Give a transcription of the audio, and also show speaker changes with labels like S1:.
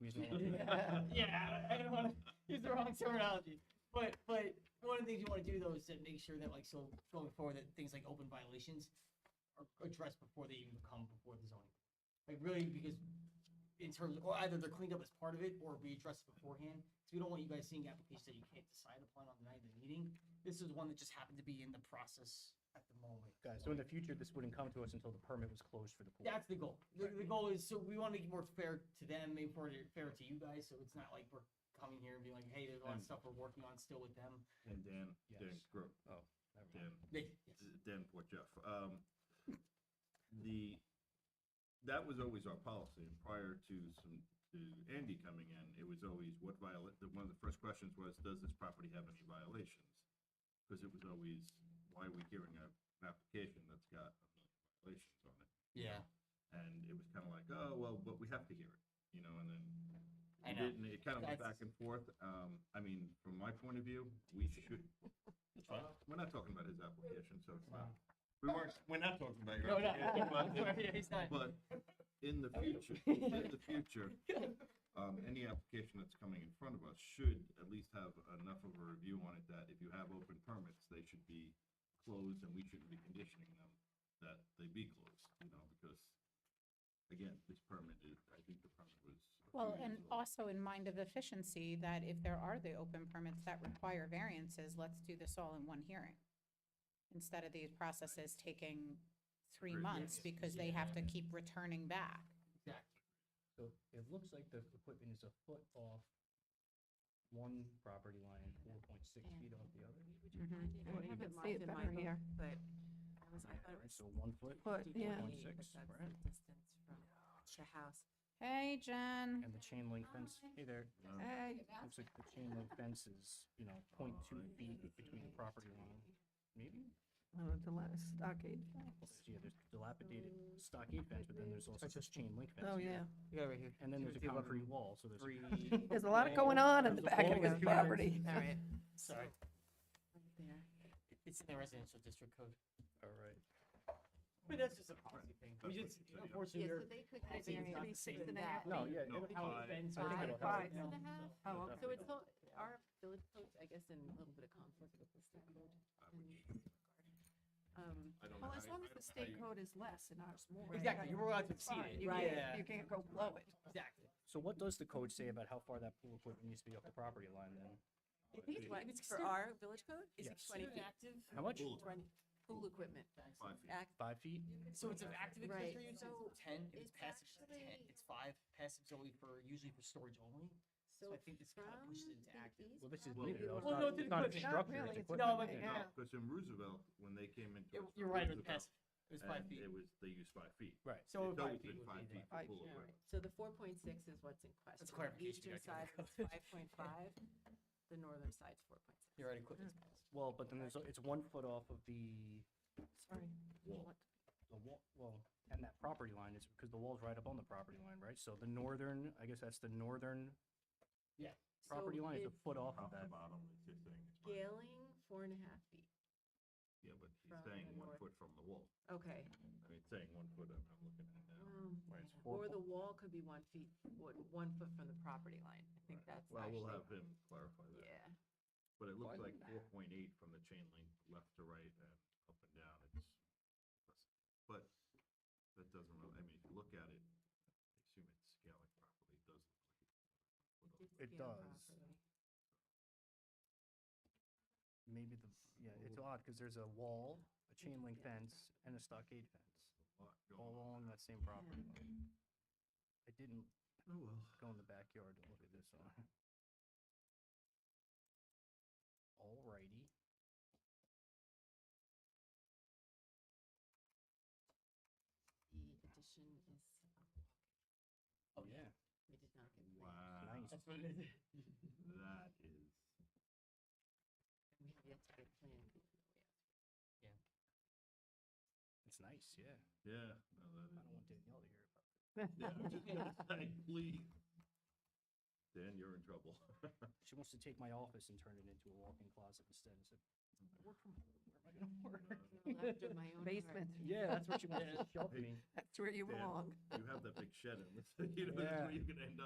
S1: We just don't want
S2: Yeah,
S1: to.
S2: yeah, I don't want to use the wrong terminology. But but one of the things you want to do though is to make sure that like so going forward that things like open violations are addressed before they even come before the zoning. Like really because in terms or either they're cleaned up as part of it or we address it beforehand. Because we don't want you guys seeing applications that you can't decide upon on the night of the meeting. This is one that just happened to be in the process at the moment.
S1: Guys, so in the future, this wouldn't come to us until the permit was closed for the pool.
S2: That's the goal. The, the goal is so we want to make it more fair to them, maybe more fair to you guys. So it's not like we're coming here and being like, hey, there's a lot of
S3: And-
S2: stuff we're working on still with them.
S3: And Dan, Dan,
S1: Yes.
S3: Gro-
S1: Oh, never
S3: Dan,
S1: mind.
S2: They, yes.
S3: Dan, poor Jeff. Um, the, that was always our policy and prior to some, to Andy coming in, it was always what viola, the, one of the first questions was, does this property have any violations? Because it was always, why are we hearing a, an application that's got a million violations on it?
S2: Yeah,
S3: And it was kind of like, oh, well, but we have to hear it, you know, and then
S2: I
S3: it
S2: know.
S3: didn't, it kind of went
S2: That's-
S3: back and forth. Um, I mean, from my point of view, we should, uh, we're not talking about his application, so it's not, we weren't, we're not talking about your
S2: No, no,
S3: application. but-
S2: yeah, he's not.
S3: But in the future, in the future, um, any application that's coming in front of us should at least have enough of a review on it that if you have open permits, they should be closed and we shouldn't be conditioning them that they be closed, you know, because again, this permit is, I think the permit was. a few
S4: Well,
S3: years
S4: and
S3: old.
S4: also in mind of efficiency, that if there are the open permits that require variances, let's do this all in one hearing. Instead of these processes taking three
S3: Agreed.
S4: months because they have to keep returning back.
S2: Exactly.
S1: So it looks like the equipment is a foot off one property line, four point six feet off the other.
S5: I
S6: I
S5: haven't
S6: haven't
S5: see
S6: marked
S5: it
S6: in my
S5: better
S6: book,
S5: here.
S6: but I was, I thought it
S1: Right,
S6: was
S1: So one foot
S5: But, yeah,
S6: 48, but
S1: 2.6,
S6: that's the
S1: right?
S6: distance from the house.
S4: Hey, Jen.
S1: and the chain link fence, hey there,
S3: Um,
S5: hey,
S1: looks like the chain link fence is, you know, 0.2 feet between the property line. Maybe,
S5: I went to last stockade.
S1: yeah, there's dilapidated stockade fence, but then there's also this chain link fence.
S5: Oh, yeah.
S1: You got it right here. And then there's a concrete wall, so there's.
S5: There's a lot of going on at the
S1: There's a
S5: back of
S1: whole
S5: this
S1: different-
S5: property.
S6: All right,
S2: Sorry,
S6: right there.
S2: it's in the residential district code.
S1: All right.
S2: But that's just a policy thing. We
S3: That's what
S2: just
S3: you said, yeah.
S2: unfortunately
S6: Yeah,
S2: we're
S6: so they could
S2: I see
S6: get
S2: it's not the
S6: variances
S2: same.
S6: to
S2: No,
S6: that.
S1: No, yeah,
S3: No,
S1: it'll help.
S2: how it's been. So I think
S6: Five.
S1: it'll help.
S5: Five.
S6: It's gonna have-
S5: Oh,
S1: It'll
S6: So
S5: okay.
S1: definitely
S6: it's all, our village code, I guess, in a little bit of conflict with the state code. in that regard. Um,
S3: I don't know
S5: Well,
S3: how
S5: as
S3: you- I don't know
S5: long as the
S3: how
S5: state
S3: you-
S5: code is less and ours more.
S2: Exactly, you're allowed to exceed it.
S5: Fine, you can't,
S2: Yeah,
S5: you can't go below it.
S2: exactly.
S1: So what does the code say about how far that pool equipment needs to be off the property line then?
S6: I think it's what,
S2: It's still-
S6: for our village code, is it
S1: Yes.
S6: twenty feet?
S1: How much?
S3: Pool.
S6: Twenty, pool equipment.
S3: Five feet.
S6: Act-
S1: Five feet?
S2: So it's an active
S6: Right.
S2: accessory use,
S6: So
S2: it's ten, if it's
S6: it's
S2: passive, it's ten,
S6: actually-
S2: it's five, passive's only for, usually for storage only. So I
S6: So
S2: think this
S6: from
S2: kind of pushes it into
S6: the
S2: active.
S6: east
S1: Well, this is
S6: property
S1: needed. though.
S6: line-
S1: It's
S2: Well,
S1: not-
S2: no,
S1: it's
S2: it's
S1: not
S2: equipment.
S1: a
S2: Not
S1: structure,
S5: really,
S2: No,
S1: it's
S5: it's-
S1: equipment.
S2: but-
S1: yeah.
S3: No,
S5: Yeah.
S3: because in Roosevelt, when they came into.
S2: You're-
S3: it,
S2: You're right, it was
S3: Roosevelt,
S2: passive, it was five
S3: and
S2: feet.
S3: It was, they used five feet.
S2: So
S1: Right.
S3: It's
S2: five
S3: always
S2: feet
S3: been
S2: would
S3: five
S2: be
S3: feet for
S2: the,
S5: Five,
S3: pool
S6: All right,
S3: equipment.
S6: so the four point six is what's in question.
S2: That's clarification,
S6: Eastern
S2: I got
S6: side
S2: it.
S6: is five point five, the northern side's four point six.
S2: you're right,
S5: Hmm.
S2: equipment's passive.
S1: Well, but then there's, it's one foot off of the,
S5: Sorry.
S3: Wall.
S1: the wall, well, and that property line is, because the wall's right up on the property line, right? So the northern, I guess that's the northern
S6: So
S1: property line is a
S6: it's
S1: foot off
S3: Off
S1: of
S3: the
S1: that.
S3: bottom, it's his thing. it's mine.
S6: Scaling four and a half feet.
S3: Yeah, but he's
S6: from
S3: saying
S6: the
S3: one
S6: north.
S3: foot from the wall.
S6: Okay.
S3: I mean, it's saying one foot, I'm, I'm looking at it now.
S6: um,
S1: Right, it's four
S6: Or
S1: foot.
S6: the wall could be one feet, one, one foot from the property line. I think
S3: Right.
S6: that's
S3: Well,
S6: actually,
S3: we'll have him clarify that.
S6: yeah.
S3: But it looks like four point eight from the chain link, left to right and up and down. It's, but that doesn't really, I mean, if you look at it, I assume it's scaling properly, it does look like.
S1: It
S6: scale
S1: does.
S6: properly.
S1: Maybe the, yeah, it's odd, because there's a wall, a chain link fence, and a stockade fence,
S3: a lot going on.
S1: all
S3: Oh,
S1: along that same property line. I didn't
S3: Oh, well.
S1: go in the backyard and look at this one. Alrighty.
S6: The addition is,
S2: Oh, yeah,
S6: we did not get. the-
S3: Wow,
S1: Nice.
S2: that's what it is.
S3: that is,
S6: We have yet to get a plan.
S1: It's nice, yeah.
S3: yeah, no, that
S1: I
S3: is.
S1: don't want Danielle to hear about
S3: Yeah, I was just gonna say, please. Dan, you're in trouble.
S1: it. She wants to take my office and turn it into a walk-in closet instead. I said, I work from home. Where am I gonna work?
S6: After my own heart.
S5: Basement,
S1: Yeah, that's what she wants to shove me.
S5: that's where you
S3: Dan.
S5: belong.
S3: You have that big shed in this, you know, that's
S1: Yeah.
S3: where you're gonna end up.